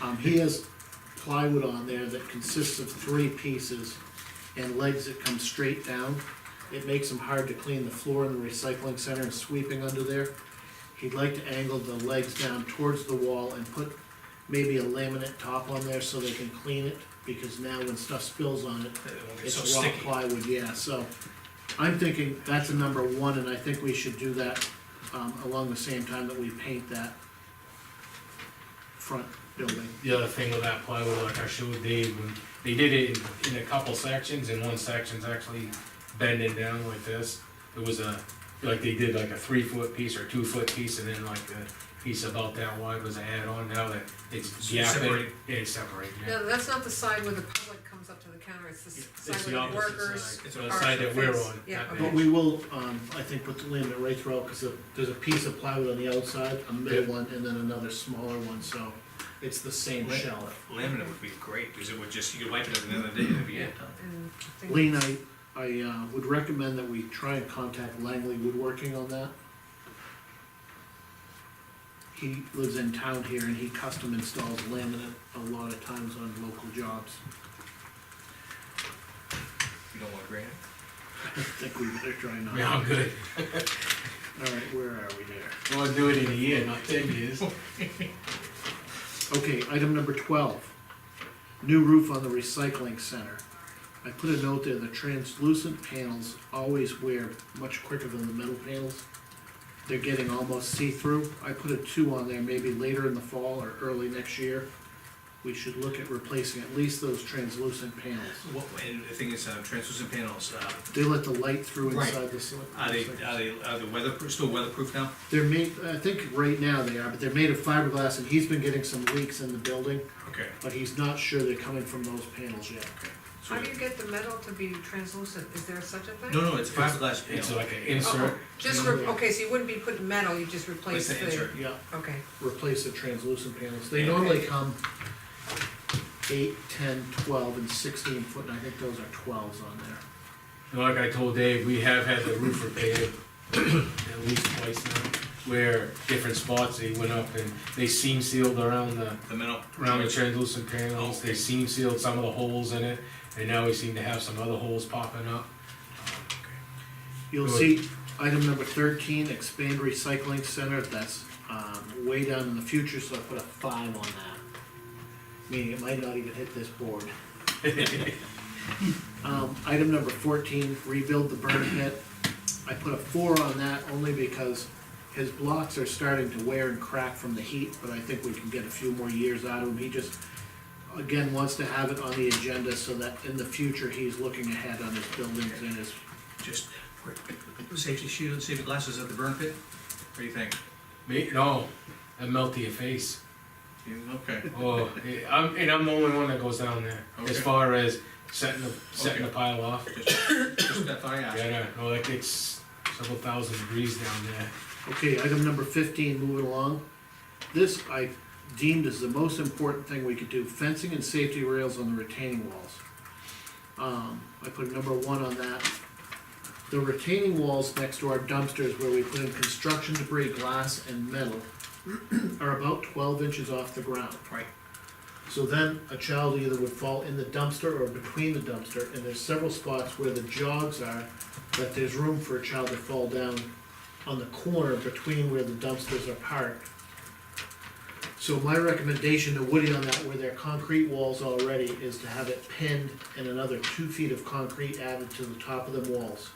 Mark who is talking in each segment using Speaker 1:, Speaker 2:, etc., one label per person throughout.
Speaker 1: Um, he has plywood on there that consists of three pieces and legs that come straight down. It makes them hard to clean the floor in the recycling center and sweeping under there. He'd like to angle the legs down towards the wall and put maybe a laminate top on there so they can clean it, because now when stuff spills on it,
Speaker 2: It won't get so
Speaker 1: it's raw
Speaker 2: sticky.
Speaker 1: plywood, yeah, so. I'm thinking that's a number one, and I think we should do that, um, along the same time that we paint that front building.
Speaker 3: The other thing with that plywood, like I showed Dave, when they did it in, in a couple sections, and one section's actually bending down like this. It was a, like they did like a three foot piece or two foot piece, and then like the piece about that wide was added on, now that it's gapping,
Speaker 2: Separate.
Speaker 3: it's separating, yeah.
Speaker 4: No, that's not the side where the public comes up to the counter, it's the s-
Speaker 3: It's
Speaker 4: side
Speaker 3: the
Speaker 4: where the
Speaker 3: opposite
Speaker 4: workers.
Speaker 3: side, it's the
Speaker 4: are
Speaker 3: side that we're
Speaker 4: faced-
Speaker 3: on.
Speaker 4: yeah,
Speaker 3: that
Speaker 4: okay.
Speaker 3: big.
Speaker 1: But we will, um, I think put the laminate right throughout, because there's a piece of plywood on the outside, a middle one, and then another smaller one, so it's the same
Speaker 2: Right.
Speaker 1: shell.
Speaker 2: Laminate would be great, because it would just, you could wipe it up another day, it'd be it.
Speaker 4: And I think-
Speaker 1: Lean, I, I, uh, would recommend that we try and contact Langley Woodworking on that. He lives in town here and he custom installs laminate a lot of times on local jobs.
Speaker 2: You don't want granite?
Speaker 1: I think we better try not.
Speaker 3: Yeah, I'm good,
Speaker 1: Alright, where are we there?
Speaker 3: I wanna do it in a year, not ten years.
Speaker 1: Okay, item number twelve, new roof on the recycling center. I put a note there, the translucent panels always wear much quicker than the metal panels. They're getting almost see-through. I put a two on there, maybe later in the fall or early next year. We should look at replacing at least those translucent panels.
Speaker 2: What, and the thing is, uh, translucent panels, uh,
Speaker 1: They let the light through
Speaker 2: Right.
Speaker 1: inside the. cell-
Speaker 2: are they, are they, are they weatherproof, still weatherproof now?
Speaker 1: They're made, I think right now they are, but they're made of fiberglass and he's been getting some leaks in the building,
Speaker 2: Okay.
Speaker 1: but he's not sure they're coming from those panels yet.
Speaker 2: Okay. So-
Speaker 4: How do you get the metal to be translucent, is there such a thing?
Speaker 2: No, no, it's a fiberglass
Speaker 3: It's
Speaker 2: panel.
Speaker 3: like an
Speaker 4: Oh,
Speaker 3: insert,
Speaker 4: Just, re- okay, so you wouldn't be putting metal, you just replace
Speaker 2: Place the
Speaker 4: the.
Speaker 2: insert.
Speaker 1: Yeah,
Speaker 4: Okay,
Speaker 1: replace the translucent panels. They normally come eight, ten, twelve, and sixteen foot, and I think those are twelves on there.
Speaker 3: And Like I told Dave, we have had the roof repaired at least twice now, where different spots, they went up and they seam sealed around the,
Speaker 2: The metal.
Speaker 3: around the translucent panels, they seam sealed some of the holes in it, and now we seem to have some other holes popping up.
Speaker 1: You'll
Speaker 3: Good.
Speaker 1: see item number thirteen, expand recycling center, that's, um, way down in the future, so I put a five on that. Meaning it might not even hit this board. Um, item number fourteen, rebuild the burn pit. I put a four on that only because his blocks are starting to wear and crack from the heat, but I think we can get a few more years out of him. He just, again, wants to have it on the agenda so that in the future, he's looking ahead on his buildings and his
Speaker 2: Just, quick, safety shield, safety glasses at the burn pit? What do you think?
Speaker 3: Me, no, that melt your face.
Speaker 2: You- Okay.
Speaker 3: Oh, eh, I'm, and I'm the only one that goes down there, as
Speaker 2: Okay.
Speaker 3: far as setting the, setting the pile off.
Speaker 2: Just just that thought I asked.
Speaker 3: Yeah, no, like it's several thousand degrees down there.
Speaker 1: Okay, item number fifteen, moving along. This I deemed as the most important thing we could do, fencing and safety rails on the retaining walls. Um, I put number one on that. The retaining walls next to our dumpsters where we put in construction debris, glass and metal are about twelve inches off the ground.
Speaker 2: Right.
Speaker 1: So then a child either would fall in the dumpster or between the dumpster, and there's several spots where the jogs are, that there's room for a child to fall down on the corner between where the dumpsters are parked. So my recommendation to Woody on that, where there are concrete walls already, is to have it pinned and another two feet of concrete added to the top of them walls.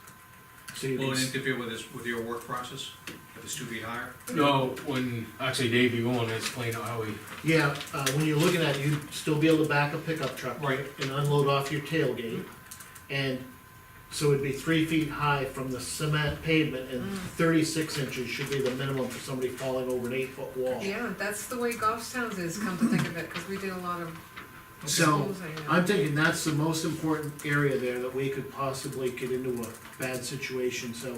Speaker 1: So you can,
Speaker 2: Will it
Speaker 1: s-
Speaker 2: interfere with this, with your work process? If it's two feet higher?
Speaker 3: No, when, actually Dave, you won't explain how we
Speaker 1: yeah, uh, when you're looking at it, you'd still be able to back a pickup truck.
Speaker 2: Right.
Speaker 1: and unload off your tailgate. And so it'd be three feet high from the cement pavement and thirty-six inches should be the minimum for somebody falling over an eight-foot wall.
Speaker 4: yeah, that's the way golf towns is, come to think of it, cause we did a lot of
Speaker 1: So,
Speaker 4: schools, I know.
Speaker 1: I'm thinking that's the most important area there that we could possibly get into a bad situation, so,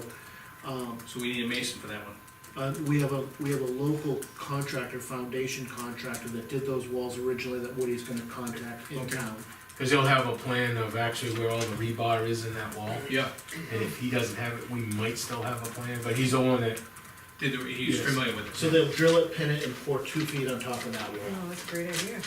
Speaker 1: um,
Speaker 2: So we need a mason for that one.
Speaker 1: Uh, we have a, we have a local contractor, foundation contractor that did those walls originally that Woody's gonna contact in
Speaker 2: Okay.
Speaker 1: town.
Speaker 3: Cause he'll have a plan of actually where all the rebar is in that wall,
Speaker 2: Yeah.
Speaker 3: and if he doesn't have it, we might still have a plan, but he's the one that,
Speaker 2: Did, the- he's
Speaker 3: Yes.
Speaker 2: familiar with it.
Speaker 1: So they'll drill it, pin it, and pour two feet on top of that wall.
Speaker 4: Oh, that's a great idea.